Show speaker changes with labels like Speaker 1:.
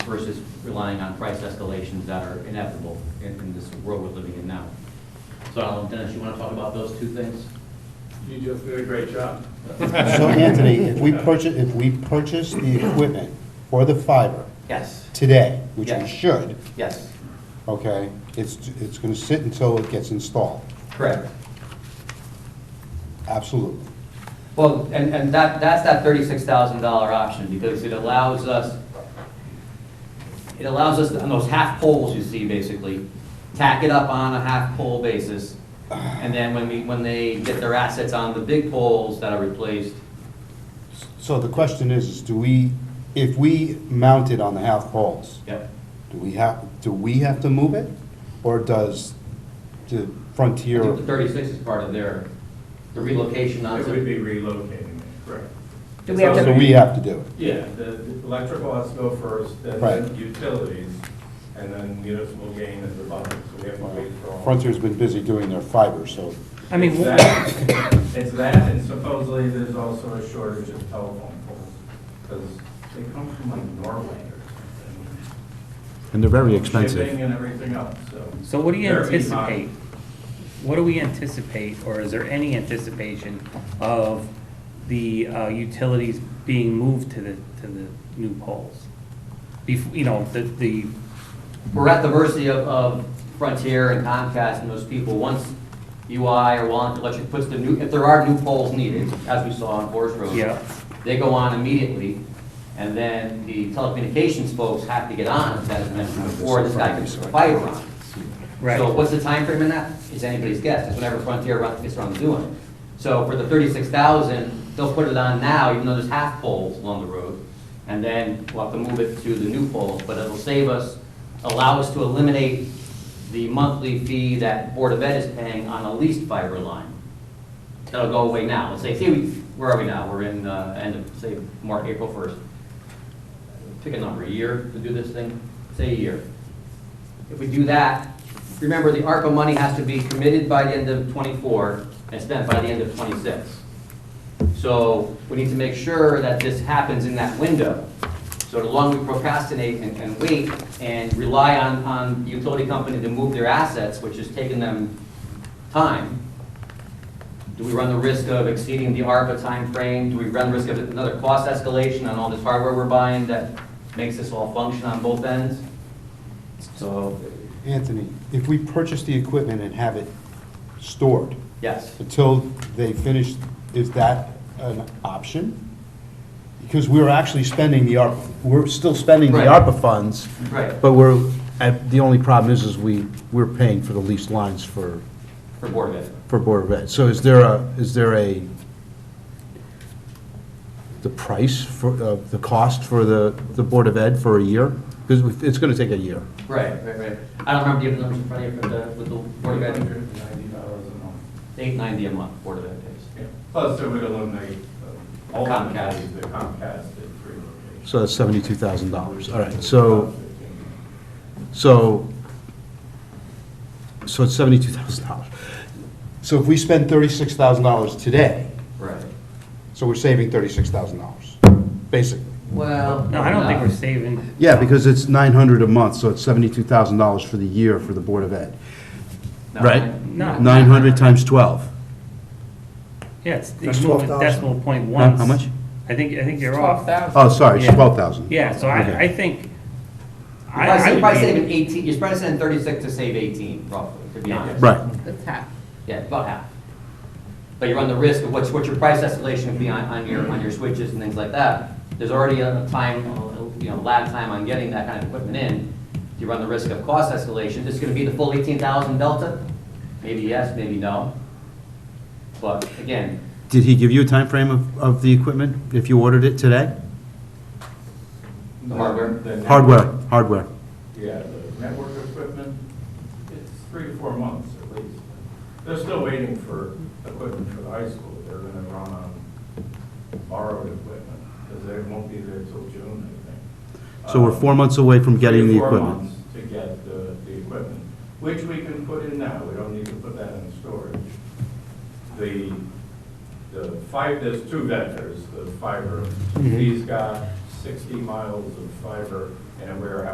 Speaker 1: versus relying on price escalations that are inevitable in, in this world we're living in now. So, Alan, Dennis, you want to talk about those two things?
Speaker 2: You just did a great job.
Speaker 3: So Anthony, if we purchase, if we purchase the equipment for the fiber
Speaker 1: Yes,
Speaker 3: today, which
Speaker 1: Yeah.
Speaker 3: we should,
Speaker 1: yes,
Speaker 3: okay, it's, it's gonna sit until it gets installed,
Speaker 1: correct.
Speaker 3: absolutely.
Speaker 1: Well, and, and that, that's that thirty-six thousand dollar option, because it allows us, it allows us, to- on those half poles you see basically, tack it up on a half pole basis, and then when we, when they get their assets on the big poles that are replaced,
Speaker 3: So the question is, is do we, if we mount it on the half poles,
Speaker 1: yep,
Speaker 3: do we have, do we have to move it? Or does the
Speaker 1: I
Speaker 3: Frontier,
Speaker 1: think the thirty-six is part of their, the relocation
Speaker 4: Uh,
Speaker 2: It would
Speaker 1: onto.
Speaker 2: be relocating it, correct.
Speaker 5: Do we have
Speaker 3: so
Speaker 5: to,
Speaker 3: we have to do it?
Speaker 2: Yeah, the the electrical has to go first, and
Speaker 3: Right.
Speaker 2: then utilities, and then municipal gain is the bottom, so we have to wait for all.
Speaker 3: Frontier's been busy doing their fiber, so,
Speaker 4: I mean,
Speaker 2: It's that, it's that, and supposedly there's also a shortage of telephone poles, because they come from like Norway or something.
Speaker 6: And they're very expensive.
Speaker 2: Shipping and everything else, so.
Speaker 4: So what do you
Speaker 2: They're behind.
Speaker 4: anticipate? What do we anticipate, or is there any anticipation of the uh, utilities being moved to the, to the new poles? Bef, you know, the, the,
Speaker 1: We're at the mercy of, of Frontier and Comcast and those people, once UI or Wallingford Electric puts the new, if there are new poles needed, as we saw on Forest Road.
Speaker 4: yeah,
Speaker 1: They go on immediately, and then the telecommunications folks have to get on, as mentioned before, this guy gets fiber on.
Speaker 4: Right.
Speaker 1: So what's the time frame in that? It's anybody's guess, it's whenever Frontier run- gets around to doing it. So for the thirty-six thousand, they'll put it on now, even though there's half poles along the road, and then we'll have to move it to the new poles, but it'll save us, allow us to eliminate the monthly fee that Board of Ed is paying on a leased fiber line that'll go away now. Let's say, say we, where are we now? We're in, uh, end of, say, March, April first. Pick a number, a year to do this thing, say a year. If we do that, remember, the ARPA money has to be committed by the end of twenty-four and spent by the end of twenty-six. So we need to make sure that this happens in that window. So the longer we procrastinate and, and wait and rely on, on the utility company to move their assets, which is taking them time, do we run the risk of exceeding the ARPA timeframe? Do we run the risk of another cost escalation on all this hardware we're buying that makes this all function on both ends? So,
Speaker 3: Anthony, if we purchase the equipment and have it stored
Speaker 1: yes,
Speaker 3: until they finish, is that an option? Because we're actually spending the ARPA, we're still spending the
Speaker 1: Right.
Speaker 3: ARPA funds,
Speaker 1: right,
Speaker 6: But we're, uh, the only problem is, is we, we're paying for the leased lines for,
Speaker 1: for Board of Ed.
Speaker 6: for Board of Ed. So is there a, is there a, the price for, uh, the cost for the, the Board of Ed for a year? Because it's going to take a year.
Speaker 1: Right, right, right. I don't remember the other numbers in front of you for the, with the Board of Ed,
Speaker 2: dollars a month.
Speaker 1: eight ninety a month, Board of Ed pays.
Speaker 2: Yeah. Plus, it would eliminate uh, all the
Speaker 1: Comcast.
Speaker 2: the Comcast at three locations.
Speaker 6: So that's seventy-two thousand dollars. All right, so, so, so it's seventy-two thousand dollars.
Speaker 3: So if we spend thirty-six thousand dollars today,
Speaker 1: Right.
Speaker 3: so we're saving thirty-six thousand dollars, basically.
Speaker 1: Well.
Speaker 4: no, I don't think we're saving,
Speaker 3: Yeah, because it's nine hundred a month, so it's seventy-two thousand dollars for the year for the Board of Ed.
Speaker 1: No.
Speaker 6: right.
Speaker 4: no.
Speaker 3: Nine hundred times twelve.
Speaker 4: Yeah, it's, you
Speaker 3: That's
Speaker 4: move it
Speaker 3: 12,000.
Speaker 4: decimal point
Speaker 3: Huh?
Speaker 4: once.
Speaker 3: How much?
Speaker 4: I think, I think you're
Speaker 5: twelve
Speaker 4: off.
Speaker 5: thousand?
Speaker 3: Oh, sorry,
Speaker 4: Yeah.
Speaker 3: twelve thousand.
Speaker 4: Yeah, so
Speaker 3: Okay.
Speaker 4: I, I think.
Speaker 1: You're
Speaker 4: I-
Speaker 1: probably sa- you're
Speaker 4: I would
Speaker 1: probably
Speaker 4: be-
Speaker 1: saving eighteen, you're probably saving thirty-six to save eighteen, roughly, to be
Speaker 4: Yeah.
Speaker 1: honest.
Speaker 3: Right.
Speaker 5: That's half.
Speaker 1: Yeah, about half. But you run the risk of what's, what's your price escalation would be on, on your, on your switches and things like that. There's already a time, you know, lag time on getting that kind of equipment in. You run the risk of cost escalation. It's gonna be the full eighteen thousand delta? Maybe yes, maybe no. But again,
Speaker 6: Did he give you a time frame of, of the equipment, if you ordered it today?
Speaker 1: The hardware?
Speaker 2: net-
Speaker 6: Hardware, hardware.
Speaker 2: Yeah, the network equipment, it's three to four months at least. They're still waiting for equipment for the high school. They're gonna run on borrowed equipment, because they won't be there till June, I think.
Speaker 6: So we're
Speaker 2: Um,
Speaker 6: four months away from getting the
Speaker 2: three to four
Speaker 6: equipment.
Speaker 2: months To get the, the equipment, which we can put in now, we don't need to put that in storage.
Speaker 6: Mm-hmm.
Speaker 2: The, the five, there's two vendors, the fiber, these guys, sixty miles of fiber in a warehouse